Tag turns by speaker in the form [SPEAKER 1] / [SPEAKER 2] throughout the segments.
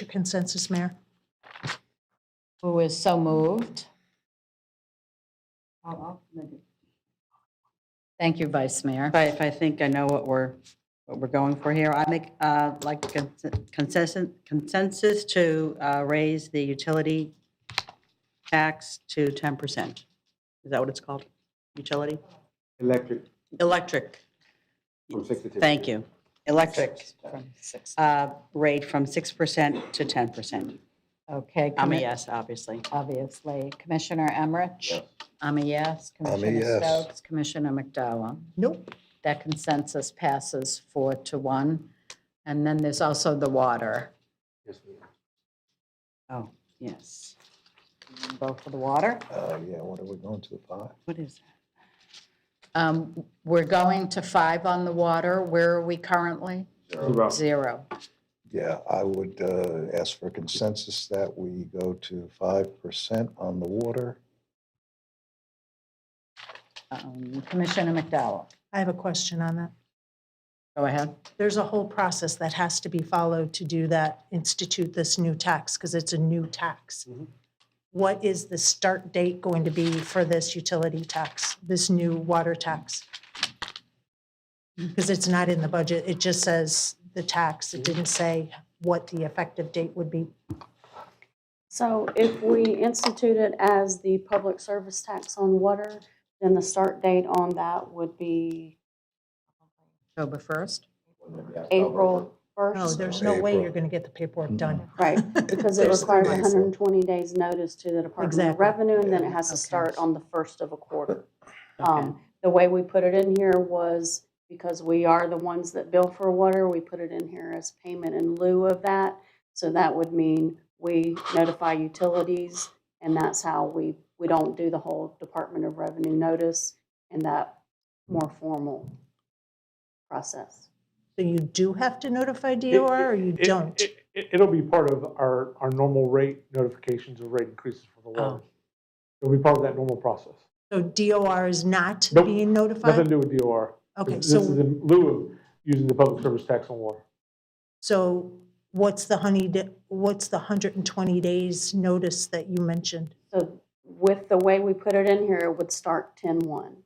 [SPEAKER 1] your consensus, Mayor?
[SPEAKER 2] Who is so moved? I'll- I'll- Thank you, Vice Mayor.
[SPEAKER 3] If I, if I think I know what we're, what we're going for here, I make, uh, like consen- consensus, consensus to uh, raise the utility tax to 10%. Is that what it's called? Utility?
[SPEAKER 4] Electric
[SPEAKER 3] Electric.
[SPEAKER 4] from six to ten.
[SPEAKER 3] Thank you. Electric uh, rate from 6% to 10%.
[SPEAKER 2] Okay.
[SPEAKER 3] I'm a
[SPEAKER 2] commi-
[SPEAKER 3] yes, obviously.
[SPEAKER 2] Obviously. Commissioner Emmerich?
[SPEAKER 4] Yes.
[SPEAKER 2] I'm a yes. Commissioner
[SPEAKER 5] yes.
[SPEAKER 2] Stokes? Commissioner McDowell?
[SPEAKER 1] Nope.
[SPEAKER 2] That consensus passes four to one. And then there's also the water.
[SPEAKER 4] Yes, ma'am.
[SPEAKER 3] Oh, yes.
[SPEAKER 2] Vote for the water.
[SPEAKER 5] Uh, yeah, what are we going to, five?
[SPEAKER 3] What is that?
[SPEAKER 2] Um, We're going to five on the water. Where are we currently?
[SPEAKER 6] Oh.
[SPEAKER 4] Zero.
[SPEAKER 2] Zero.
[SPEAKER 5] Yeah, I would uh, ask for consensus that we go to five percent on the water.
[SPEAKER 2] Um, Commissioner McDowell,
[SPEAKER 1] I have a question on that.
[SPEAKER 2] go ahead.
[SPEAKER 1] There's a whole process that has to be followed to do that, institute this new tax, because it's a new tax.
[SPEAKER 6] Mm-hmm.
[SPEAKER 4] Mhm.
[SPEAKER 1] What is the start date going to be for this utility tax, this new water tax? Because it's not in the budget, it just says the tax,
[SPEAKER 6] Mm-hmm.
[SPEAKER 1] it didn't say what the effective date would be.
[SPEAKER 7] So if we institute it as the public service tax on water, then the start date on that would be
[SPEAKER 2] October 1st?
[SPEAKER 7] April
[SPEAKER 1] No,
[SPEAKER 7] first.
[SPEAKER 1] there's no way you're
[SPEAKER 5] April.
[SPEAKER 1] going to get the paperwork done.
[SPEAKER 7] Right, because it
[SPEAKER 5] First of
[SPEAKER 7] requires
[SPEAKER 5] April.
[SPEAKER 7] hundred and twenty days notice to the Department of
[SPEAKER 1] Exactly.
[SPEAKER 7] Revenue, and then it has to
[SPEAKER 2] Okay.
[SPEAKER 7] start on the first of a quarter.
[SPEAKER 3] Okay.
[SPEAKER 7] Um, the way we put it in here was because we are the ones that bill for water, we put it in here as payment in lieu of that. So that would mean we notify utilities, and that's how we, we don't do the whole Department of Revenue notice and that more formal process.
[SPEAKER 1] So you do have to notify DOR or you
[SPEAKER 6] It-
[SPEAKER 1] don't?
[SPEAKER 6] it- it- It'll be part of our, our normal rate notifications of rate increases for the water. It'll be part of that normal process.
[SPEAKER 1] So DOR is not
[SPEAKER 6] Nope.
[SPEAKER 1] being
[SPEAKER 6] Nothing to
[SPEAKER 1] notified?
[SPEAKER 6] do with DOR.
[SPEAKER 1] Okay,
[SPEAKER 6] This this is
[SPEAKER 1] so,
[SPEAKER 6] in lieu of using the public service tax on water.
[SPEAKER 1] so what's the honey, da- what's the 120 days notice that you mentioned?
[SPEAKER 7] So with the way we put it in here, it would start 10-1.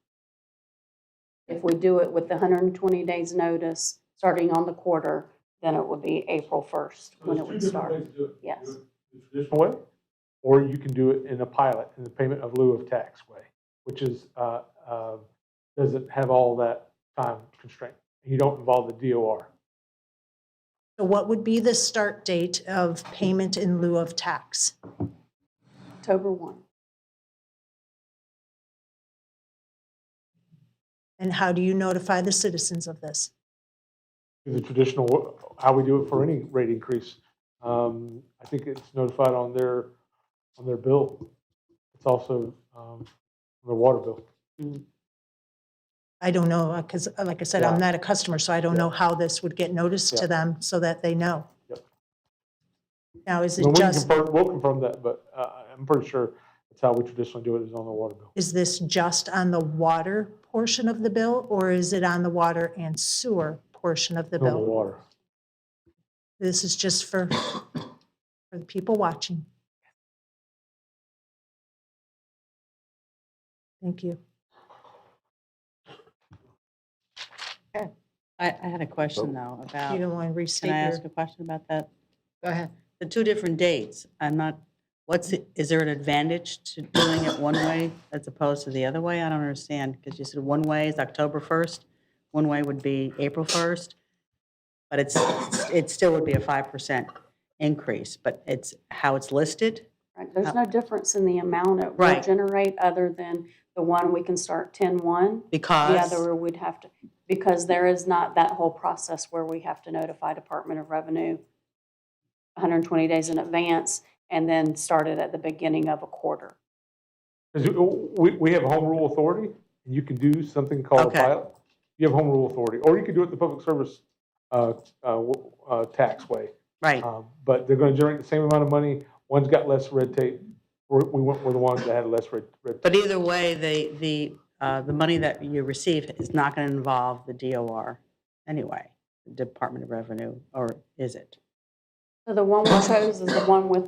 [SPEAKER 7] If we do it with the 120 days notice, starting on the quarter, then it would be April 1st when it would start. Yes.
[SPEAKER 6] The traditional way, or you can do it in a pilot, in the payment of lieu of tax way, which is, uh, uh, doesn't have all that time constraint. You don't involve the DOR.
[SPEAKER 1] So what would be the start date of payment in lieu of tax?
[SPEAKER 7] October 1.
[SPEAKER 1] And how do you notify the citizens of this?
[SPEAKER 6] the traditional, how we do it for any rate increase. Um, I think it's notified on their, on their bill. It's also um, on their water bill.
[SPEAKER 1] I don't know, because like I said, I'm not a customer, so I don't know how this would get noticed to
[SPEAKER 6] Yeah.
[SPEAKER 1] them so that they know.
[SPEAKER 6] Yep.
[SPEAKER 1] Now, is
[SPEAKER 6] Well,
[SPEAKER 1] it
[SPEAKER 6] we can
[SPEAKER 1] just,
[SPEAKER 6] confirm- We'll confirm that, but uh, I'm pretty sure that's how we traditionally do it, is on the water bill.
[SPEAKER 1] is this just on the water portion of the bill? Or is it on the water and sewer portion of the
[SPEAKER 6] On the
[SPEAKER 1] bill?
[SPEAKER 6] water.
[SPEAKER 1] This is just for, for the people watching. Thank you.
[SPEAKER 3] I, I had a question though about,
[SPEAKER 1] You don't want to
[SPEAKER 3] can
[SPEAKER 1] restate
[SPEAKER 3] I
[SPEAKER 1] your,
[SPEAKER 3] ask a question about that?
[SPEAKER 2] Go ahead.
[SPEAKER 3] the two different dates, I'm not, what's, the- is there an advantage to doing it one way as opposed to the other way? I don't understand, because you said one way is October 1st, one way would be April 1st, but it's, it still would be a 5% increase, but it's how it's listed?
[SPEAKER 7] Right, there's no difference in the amount it will
[SPEAKER 3] Right.
[SPEAKER 7] generate, other than the one we can start 10-1. The
[SPEAKER 3] Because,
[SPEAKER 7] other would have to, because there is not that whole process where we have to notify Department of Revenue 120 days in advance and then start it at the beginning of a quarter.
[SPEAKER 6] 'Cause we, we have home rule authority, and you can do something called a
[SPEAKER 3] Okay.
[SPEAKER 6] pilot. You have home rule authority, or you could do it the public service uh, uh, w- uh, tax way.
[SPEAKER 3] right,
[SPEAKER 6] Um, But they're going to generate the same amount of money. One's got less red tape. We're- We went with the ones that had less red, red tape.
[SPEAKER 3] but either way, the, the, uh, the money that you receive is not going to involve the DOR anyway, the Department of Revenue, or is it?
[SPEAKER 7] So the one we chose is the one with